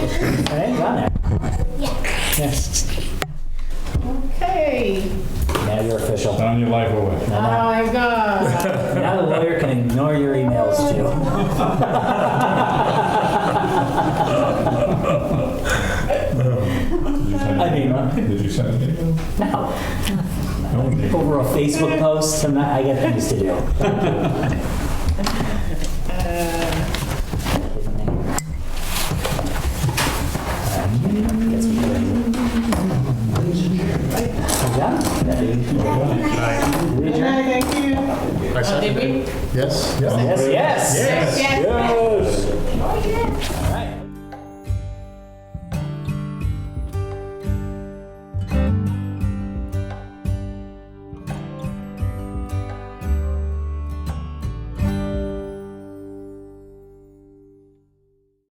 It ain't gone there. Yes. Okay, Now you're official. Down your life away. Now oh my god. now the lawyer can ignore your emails too. Did you send I mean, uh, it? Did you send it? No. No, Nick. Over a Facebook post, I'm not, I got things to do.